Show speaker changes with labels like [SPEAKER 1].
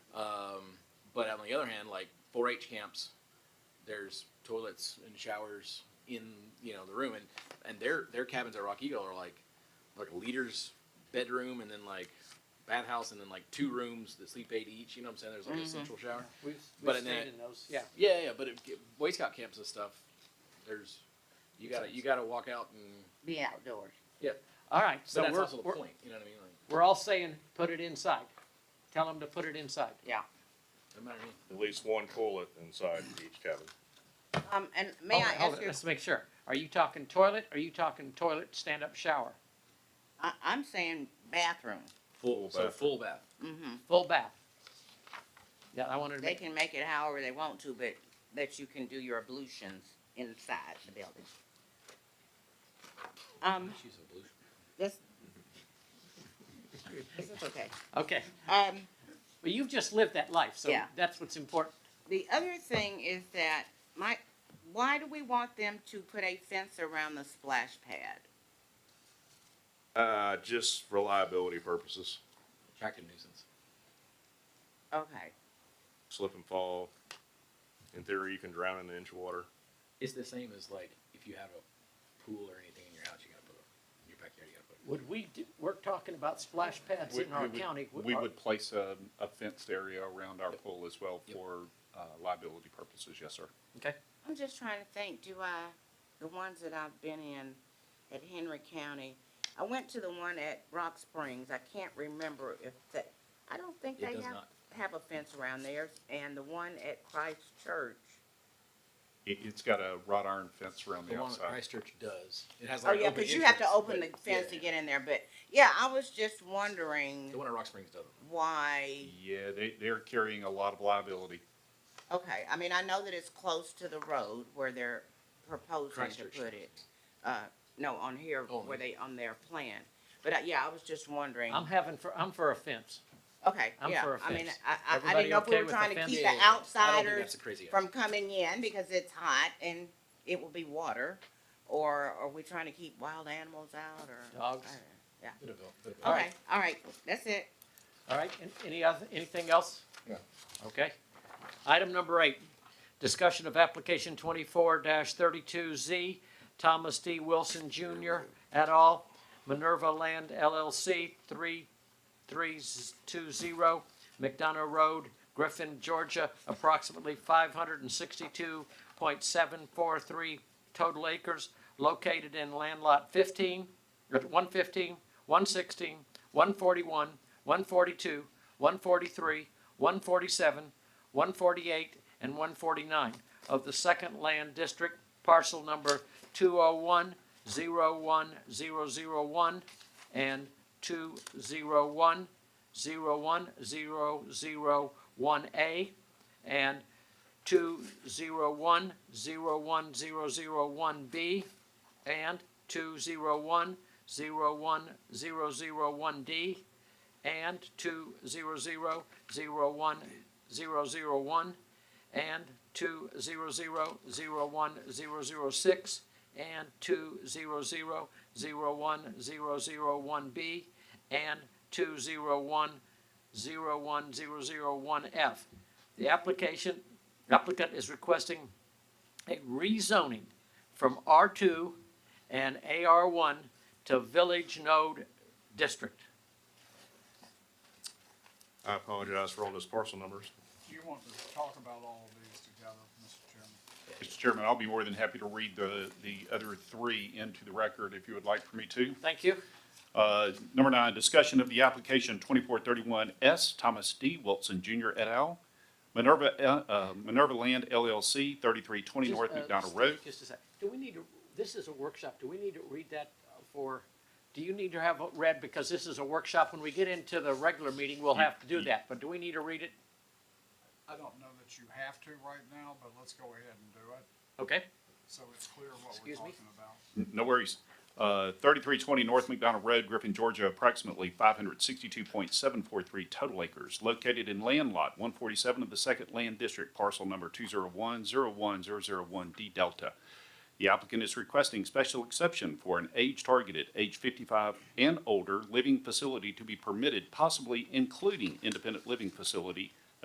[SPEAKER 1] Um, other hand, like 4-H camps, there's toilets and showers in you know the room, and and their their cabins at Rock Eagle are like like a leader's bedroom, and then like bathhouse, and then like two rooms that sleep eight each. You know what I'm saying? There's like a central shower.
[SPEAKER 2] We've,
[SPEAKER 1] But
[SPEAKER 2] we've
[SPEAKER 1] in that-
[SPEAKER 2] stayed in those, Mm-hmm. yeah.
[SPEAKER 1] Yeah, yeah, but it, it- Boy Scout camps and stuff, there's you gotta you gotta walk out and
[SPEAKER 3] be outdoors.
[SPEAKER 2] All right,
[SPEAKER 1] but
[SPEAKER 2] so
[SPEAKER 1] that's
[SPEAKER 2] we're,
[SPEAKER 1] also the
[SPEAKER 2] we're,
[SPEAKER 1] point. You know what I mean? Like,
[SPEAKER 2] we're all saying, put it inside. Tell them to put it inside.
[SPEAKER 3] Yeah.
[SPEAKER 1] no matter what.
[SPEAKER 4] At least one toilet inside each cabin.
[SPEAKER 3] Um, and may
[SPEAKER 2] Hold
[SPEAKER 3] I
[SPEAKER 2] on, hold
[SPEAKER 3] ask
[SPEAKER 2] on,
[SPEAKER 3] you,
[SPEAKER 2] Let's make sure. Are you talking toilet? Are you talking toilet, stand-up shower,
[SPEAKER 3] I, I'm saying bathroom.
[SPEAKER 1] full so
[SPEAKER 4] bath.
[SPEAKER 1] full bath.
[SPEAKER 3] hmm
[SPEAKER 2] full bath? Yeah, I wanted to
[SPEAKER 3] They
[SPEAKER 2] make,
[SPEAKER 3] can make it however they want to, but that you can do your ablutions inside the building. Um,
[SPEAKER 1] She's a blue.
[SPEAKER 3] this. This is okay.
[SPEAKER 2] okay.
[SPEAKER 3] Um,
[SPEAKER 2] Well, you've just lived that life, so
[SPEAKER 3] Yeah.
[SPEAKER 2] that's what's important.
[SPEAKER 3] the other thing is that my, why do we want them to put a fence around the splash pad?
[SPEAKER 4] Uh, just reliability purposes,
[SPEAKER 1] Attractive nuisance.
[SPEAKER 3] Okay,
[SPEAKER 4] slip and fall. In theory, you can drown in an inch of water.
[SPEAKER 1] It's the same as like if you have a pool or anything in your house, you gotta put a, in your backyard, you gotta put.
[SPEAKER 2] Would we, do- we're talking about splash pads
[SPEAKER 5] We-
[SPEAKER 2] in our
[SPEAKER 5] we would-
[SPEAKER 2] county. Would-
[SPEAKER 5] We
[SPEAKER 2] are-
[SPEAKER 5] would place a, a fenced area around our pool as well
[SPEAKER 1] Yep.
[SPEAKER 5] for uh, liability purposes, yes, sir.
[SPEAKER 2] Okay.
[SPEAKER 3] I'm just trying to think, do I, the ones that I've been in at Henry County, I went to the one at Rock Springs, I can't remember if that, I don't think
[SPEAKER 1] It
[SPEAKER 3] they
[SPEAKER 1] does
[SPEAKER 3] have,
[SPEAKER 1] not.
[SPEAKER 3] have a fence around theirs, and the one at Christ Church.
[SPEAKER 5] It, it's got a wrought iron fence around
[SPEAKER 1] The
[SPEAKER 5] the
[SPEAKER 1] one that
[SPEAKER 5] outside.
[SPEAKER 1] Christchurch does. It has
[SPEAKER 3] Oh,
[SPEAKER 1] like. an
[SPEAKER 3] yeah,
[SPEAKER 1] open
[SPEAKER 3] cause you have to
[SPEAKER 1] entrance,
[SPEAKER 3] open the
[SPEAKER 1] but-
[SPEAKER 3] fence
[SPEAKER 1] yeah,
[SPEAKER 3] to
[SPEAKER 1] yeah.
[SPEAKER 3] get in there, but, yeah, I was just wondering
[SPEAKER 1] The one at Rock Springs doesn't.
[SPEAKER 3] why,
[SPEAKER 5] Yeah, they, they're carrying a lot of liability.
[SPEAKER 3] okay, I mean, I know that it's close to the road where they're proposing
[SPEAKER 1] Christ
[SPEAKER 3] to
[SPEAKER 1] Church
[SPEAKER 3] put
[SPEAKER 1] does.
[SPEAKER 3] it. Uh, no, on here,
[SPEAKER 1] Oh,
[SPEAKER 3] where
[SPEAKER 1] yeah.
[SPEAKER 3] they, on their plan, but, uh, yeah, I was just wondering.
[SPEAKER 2] I'm having for, I'm for a fence.
[SPEAKER 3] Okay,
[SPEAKER 2] I'm
[SPEAKER 3] yeah,
[SPEAKER 2] for a
[SPEAKER 3] I mean,
[SPEAKER 2] fence.
[SPEAKER 3] I, I, I
[SPEAKER 2] Everybody
[SPEAKER 3] didn't know if we
[SPEAKER 2] okay
[SPEAKER 3] were
[SPEAKER 2] with a
[SPEAKER 3] trying to
[SPEAKER 2] fence?
[SPEAKER 3] keep
[SPEAKER 2] Yeah,
[SPEAKER 3] the
[SPEAKER 1] I don't think That's
[SPEAKER 3] outsiders
[SPEAKER 1] a crazy.
[SPEAKER 3] from coming in because it's hot and it will be water, or are we trying to keep wild animals out or?
[SPEAKER 2] Dogs.
[SPEAKER 3] I don't know.
[SPEAKER 2] All
[SPEAKER 3] Okay,
[SPEAKER 2] right.
[SPEAKER 3] all right, that's it.
[SPEAKER 2] All right, an- any other, anything else?
[SPEAKER 5] No.
[SPEAKER 2] Okay. Item number eight, discussion of application twenty-four thirty-two Z, Thomas D. Wilson Jr. et al., Minerva Land LLC, three, three, z- two, zero, McDonough Road, Griffin, Georgia, approximately five hundred and sixty-two point seven four three total acres, located in land lot fifteen, one fifteen, one sixteen, one forty-one, one forty-two, one forty-three, one forty-seven, one forty-eight, and one forty-nine of the Second Land District, parcel number two oh one, zero one, zero zero one, and two zero one, zero one, zero zero one A, and two zero one, zero one, zero zero one B, and two zero one, zero one, zero zero one D, and two zero zero zero one zero zero one and two zero zero zero one zero zero six and two zero zero zero one zero zero one B and two zero one zero one zero zero one F. The application applicant is requesting a rezoning from R two and AR one to Village Node District.
[SPEAKER 4] I apologize for all those parcel numbers.
[SPEAKER 6] You want to talk about all of these together, Mr. Chairman?
[SPEAKER 5] Mr. Chairman, I'll be more than happy to read the, the other three into the record if you would like for me to.
[SPEAKER 2] Thank you.
[SPEAKER 5] Uh, Number nine, discussion of the application 2431S, Thomas D. Wilson Jr. et al., Minerva, uh, uh, Minerva Land LLC, 3320
[SPEAKER 2] Just,
[SPEAKER 5] North
[SPEAKER 2] uh,
[SPEAKER 5] McDonald
[SPEAKER 2] just-
[SPEAKER 5] Road.
[SPEAKER 2] Just a sec. Do we need to, this is a workshop. Do we need to read that uh, for, do you need to have it read because this is a workshop? When we get into the regular meeting, we'll have to do that, but do we need to read it?
[SPEAKER 6] I don't know that you have to right now, but let's go ahead and do it,
[SPEAKER 2] Okay,
[SPEAKER 6] so it's clear what we're
[SPEAKER 2] Excuse me?
[SPEAKER 6] talking about.
[SPEAKER 5] No worries. Uh, 3320 North McDonald Road, Griffin, Georgia, approximately 562.743 total acres, located in land lot 147 of the Second Land District, parcel number 201-01001D Delta. The applicant is requesting special exception for an age-targeted, age 55 and older, living facility to be permitted, possibly including independent living facility